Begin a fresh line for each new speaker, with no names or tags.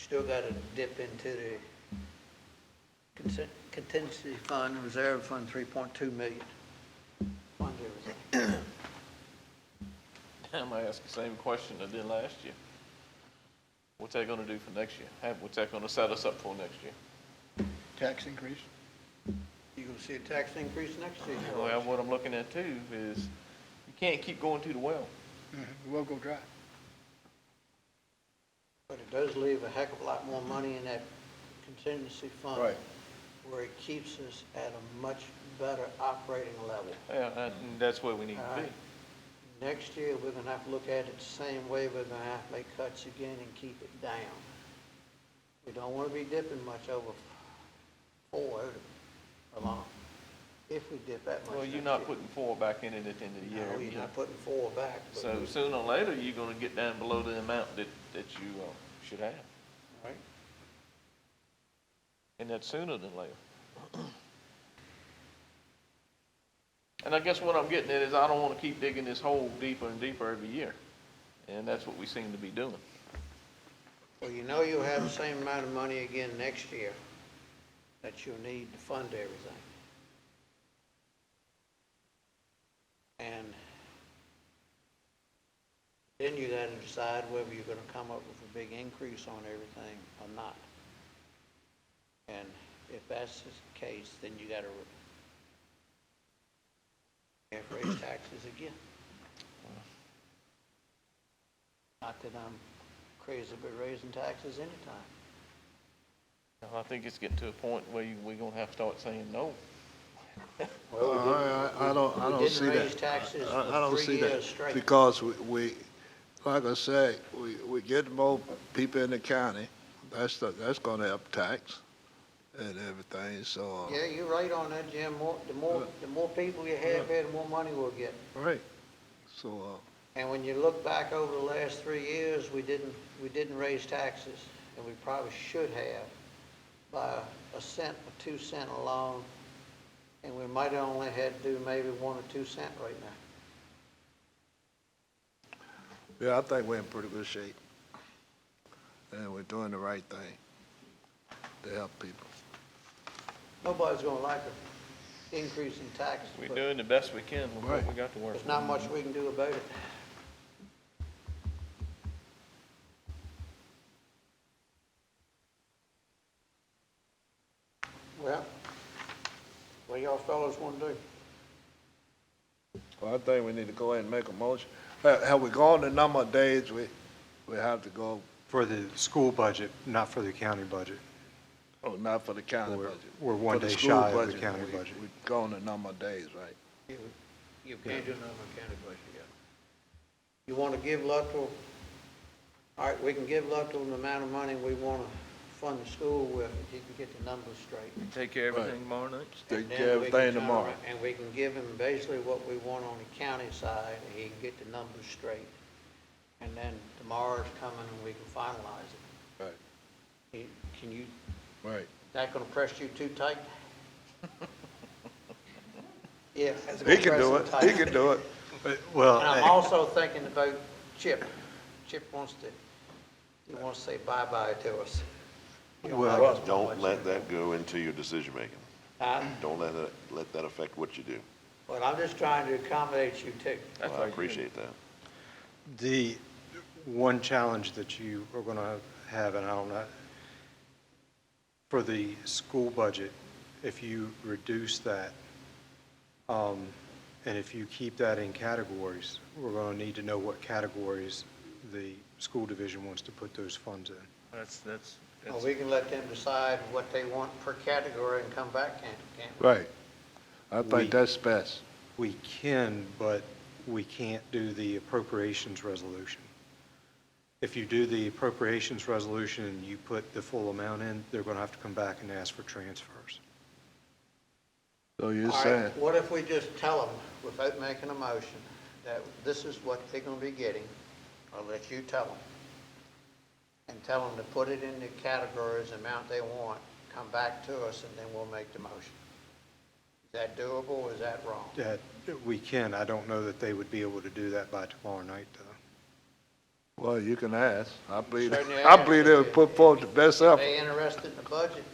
still gotta dip into the consen- contingency fund, reserve fund, three point two million. Fund everything.
I'm gonna ask the same question I did last year. What's that gonna do for next year? How- What's that gonna set us up for next year?
Tax increase?
You gonna see a tax increase next year?
Well, what I'm looking at too is, you can't keep going to the well.
Mhm, We'll go dry.
But it does leave a heck of a lot more money in that contingency fund.
Right.
Where it keeps us at a much better operating level.
Yeah, that- and that's where we need to
Alright.
be.
Next year, we're gonna have to look at it the same way, we're gonna have to make cuts again and keep it down. We don't wanna be dipping much over four along, if we dip that much.
Well, you're
next
not
year.
putting four back in it at the end of the year.
No,
every
you're
year.
not putting four back. but
So
we-
sooner or later, you're gonna get down below the amount that, that you, uh, should have.
Right.
And that's sooner than later. And I guess what I'm getting at is I don't wanna keep digging this hole deeper and deeper every year. And that's what we seem to be doing.
Well, you know you'll have the same amount of money again next year that you'll need to fund everything. And then you gotta decide whether you're gonna come up with a big increase on everything or not. And if that's the case, then you gotta re- you have to raise taxes again. Not that I'm crazy about raising taxes anytime.
And I think it's getting to a point where you, we're gonna have to start saying no.
Well, we
Uh,
didn't-
I, I don't, I
we
don't
didn't
see that.
raise taxes
I- I- I
for
don't
three
see that,
years straight.
Because we, we, like I say, we, we get more people in the county, that's, the- that's gonna up tax and everything, so. uh,
Yeah, you're right on that, Jim. More, the more, the more people you have here, the more money we'll get.
Right, so, uh,
And when you look back over the last three years, we didn't, we didn't raise taxes, and we probably should have by a cent or two cent alone. And we might have only had to do maybe one or two cent right now.
uh, yeah, I think we're in pretty good shape. And we're doing the right thing to help people.
Nobody's gonna like an increase in taxes,
We're
but
doing the best we can with what
Right.
we got to work
there's
with.
not much we can do about it. Well, what y'all fellows wanna do?
Well, I think we need to go ahead and make a motion. Have, have we gone the number of days we, we have to go,
For the school budget, not for the county budget.
oh, not for the county
We're-
budget?
we're one
For the
day
school
shy of the
budget,
county
we-
budget.
We've gone the number of days, right?
You you can't do nothing with county budget yet. You want to give Luttrell, all right, we can give Luttrell the amount of money we want to fund the school with, if he can get the numbers straight.
Take care of everything tomorrow night.
Take
And then
care of
we can
everything
turn
tomorrow.
around- And we can give him basically what we want on the county side, and he can get the numbers straight. And then tomorrow's coming and we can finalize
Right,
it. He- Can you,
right.
that gonna press you too tight? Yeah. that's
He
gonna
can
press
do
him
it,
tight.
he can do it.
And I'm
Well,
also thinking about Chip. Chip wants to, he wants to say bye-bye to us. He don't like
Well,
us very much.
Don't let that go into your decision-making.
Uh,
Don't let that, let that affect what you do.
But I'm just trying to accommodate you too.
That's
Well, I
like-
appreciate that.
the one challenge that you are going to have, and I don't know, for the school budget, if you reduce that, um, and if you keep that in categories, we're going to need to know what categories the school division wants to put those funds in.
That's, that's,
Well,
that's-
we can let them decide what they want per category and come back, can't, can't we?
Right. I
We-
think that's best.
We can, but we can't do the appropriations resolution. If you do the appropriations resolution and you put the full amount in, they're going to have to come back and ask for transfers.
So you're
All
saying,
right, what if we just tell them, without making a motion, that this is what they're gonna be getting? I'll let you tell them. And tell them to put it in the categories, the amount they want, come back to us, and then we'll make the motion. Is that doable, is that wrong?
That we can, I don't know that they would be able to do that by tomorrow night, though.
Well, you can ask. I believe,
Certainly
I believe
ask.
they would put forth the best effort.
They interested in the budget,